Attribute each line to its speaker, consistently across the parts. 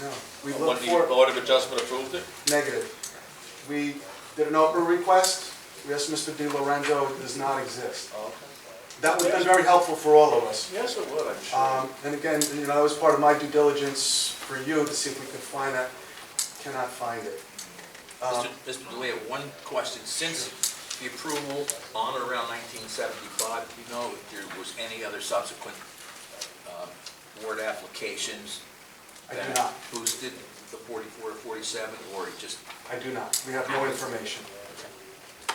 Speaker 1: No, we
Speaker 2: When
Speaker 1: look
Speaker 2: the
Speaker 1: for,
Speaker 2: Board of Adjustment approved it?
Speaker 1: negative. We did an Oprah request, yes, Mr. Di Lorenzo does not exist. That would have been very helpful for all of us.
Speaker 2: Yes, it would, I'm
Speaker 1: Um, And again, you know, that was part of my due diligence for you to see if we could find that, cannot find it. Um,
Speaker 3: Mr. DeLeo, one question, since the approval on or around 1975, do you know if there was any other subsequent um, board applications?
Speaker 1: I do
Speaker 3: that
Speaker 1: not.
Speaker 3: Boosted the 44 or 47, or it just,
Speaker 1: I do not, we have no information.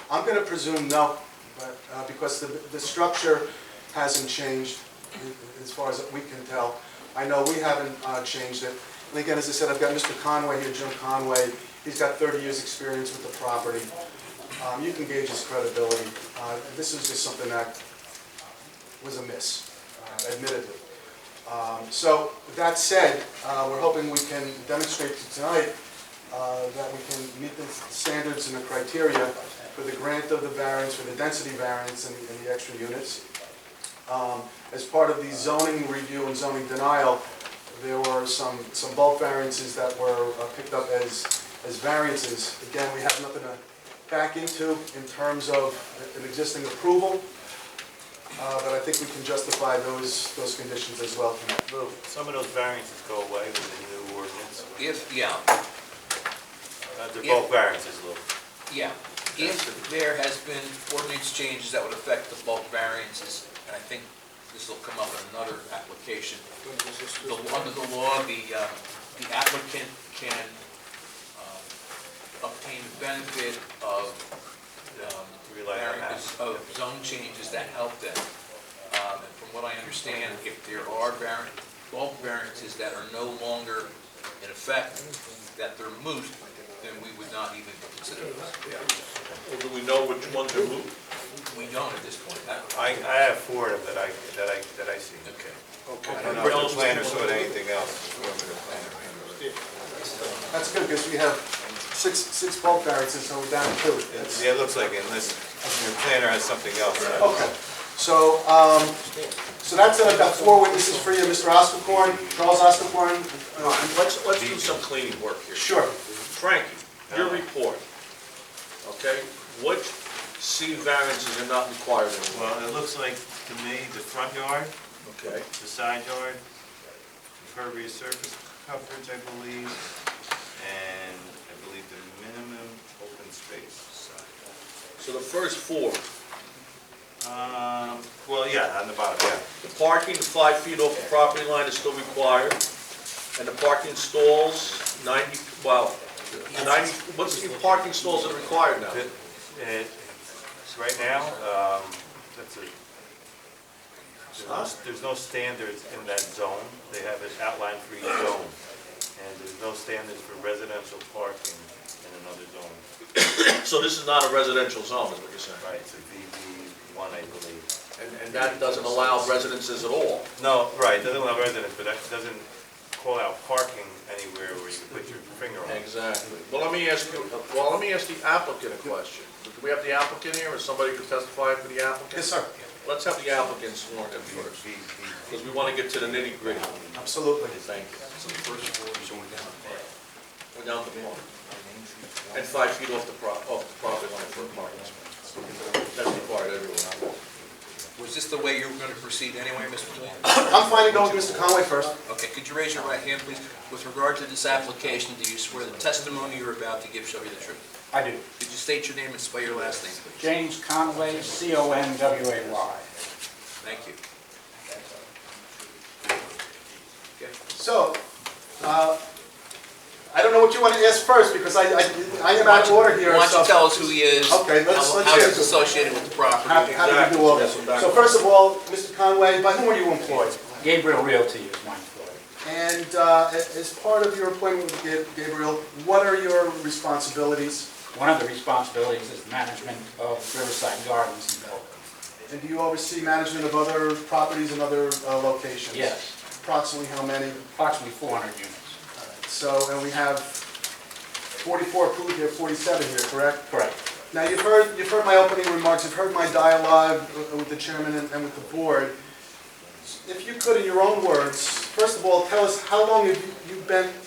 Speaker 1: I'm going to presume no, but, uh, because the, the structure hasn't changed as far as we can tell. I know we haven't uh, changed it. And again, as I said, I've got Mr. Conway here, Jim Conway, he's got 30 years' experience with the property. Um, You can gauge his credibility. Uh, This is just something that was amiss, uh, admittedly. Um, So, with that said, uh, we're hoping we can demonstrate to tonight uh, that we can meet the standards and the criteria for the grant of the variance, for the density variance and and the extra units. Um, As part of the zoning review and zoning denial, there were some, some bulk variances that were uh, picked up as, as variances. Again, we have nothing to back into in terms of an existing approval, uh, but I think we can justify those, those conditions as well tonight.
Speaker 4: Lou, some of those variances go away with the new ordinance.
Speaker 3: if, yeah,
Speaker 4: Uh, They're both variances, Lou.
Speaker 3: yeah, if there has been ordinance changes that would affect the bulk variances, and I think this will come up in another application, The- Under the law, the uh, the applicant can um, obtain the benefit of um,
Speaker 4: Rely on that.
Speaker 3: variance- of zone changes that help them. Um, And from what I understand, if there are vari- bulk variances that are no longer in effect, that they're moot, then we would not even consider those.
Speaker 2: Well, do we know which ones are moved?
Speaker 3: We don't at this point. I-
Speaker 4: I, I have four of them that I, that I, that I see.
Speaker 3: Okay.
Speaker 4: I don't know if the planner saw anything else.
Speaker 1: That's good, because we have six, six bulk variances, so we're down to two. That's-
Speaker 4: Yeah, it looks like it, unless the planner has something else.
Speaker 1: Okay, so, um, so that's it, I've got four witnesses for you, Mr. Ostakorn, Charles Ostakorn. uh,
Speaker 2: Let's, let's do some cleaning work here.
Speaker 1: Sure,
Speaker 2: Frankie, your report, okay? Which C variances are not required anymore?
Speaker 4: Well, it looks like to me, the front yard,
Speaker 2: Okay.
Speaker 4: the side yard, impervious surface coverage, I believe, and I believe the minimum open space.
Speaker 2: So the first four,
Speaker 4: Um, well, yeah, on the bottom, yeah.
Speaker 2: the parking five feet off the property line is still required, and the parking stalls, 90, well, 90, what's the parking stalls that are required now?
Speaker 4: It- it- Right now, um, that's a, there's no- there's no standards in that zone. They have it outlined for each zone. And there's no standards for residential parking in another zone.
Speaker 2: So this is not a residential zone, is what you're saying?
Speaker 4: Right, it's a VB one, I believe.
Speaker 2: And, and that doesn't allow residences at all?
Speaker 4: No, right, doesn't allow residents, but that doesn't call out parking anywhere where you can put your finger on it.
Speaker 2: Exactly. Well, let me ask you, well, let me ask the applicant a question. Do we have the applicant here, or somebody who testified for the applicant?
Speaker 1: yes, sir,
Speaker 2: Let's have the applicant sworn in first, because we want to get to the nitty gritty.
Speaker 1: absolutely.
Speaker 2: Thank you. We're down to one. And five feet off the pro, off the property line for a parking space. That's required everywhere.
Speaker 3: Was this the way you were going to proceed anyway, Mr. DeLeo?
Speaker 1: I'm fine to go with Mr. Conway first.
Speaker 3: Okay, could you raise your right hand, please? With regard to this application, do you swear the testimony you're about to give shall be the truth?
Speaker 5: I do.
Speaker 3: Could you state your name and spell your last name, please?
Speaker 5: James Conway, C-O-N-W-A-Y.
Speaker 3: Thank you. Okay.
Speaker 1: So, uh, I don't know what you want to ask first, because I, I, I am out of order here,
Speaker 3: Why don't
Speaker 1: so.
Speaker 3: you tell us who he is?
Speaker 1: Okay, let's-
Speaker 3: how-
Speaker 1: let's
Speaker 3: How
Speaker 1: hear
Speaker 3: he's
Speaker 1: it.
Speaker 3: associated with the property?
Speaker 5: Happy-
Speaker 1: How how do you do all this? So first of all, Mr. Conway, by whom are you employed?
Speaker 5: Gabriel Realty is my employer.
Speaker 1: And uh, a- as part of your appointment with Gab- Gabriel, what are your responsibilities?
Speaker 5: One of the responsibilities is management of Riverside Gardens in Belleville.
Speaker 1: And do you oversee management of other properties and other uh, locations?
Speaker 5: Yes,
Speaker 1: Approximately how many?
Speaker 5: approximately 400 units.
Speaker 1: So, and we have 44 approved here, 47 here, correct?
Speaker 5: Correct.
Speaker 1: Now, you've heard, you've heard my opening remarks, you've heard my dialogue w- with the chairman and and with the board. If you could, in your own words, first of all, tell us, how long have you- you been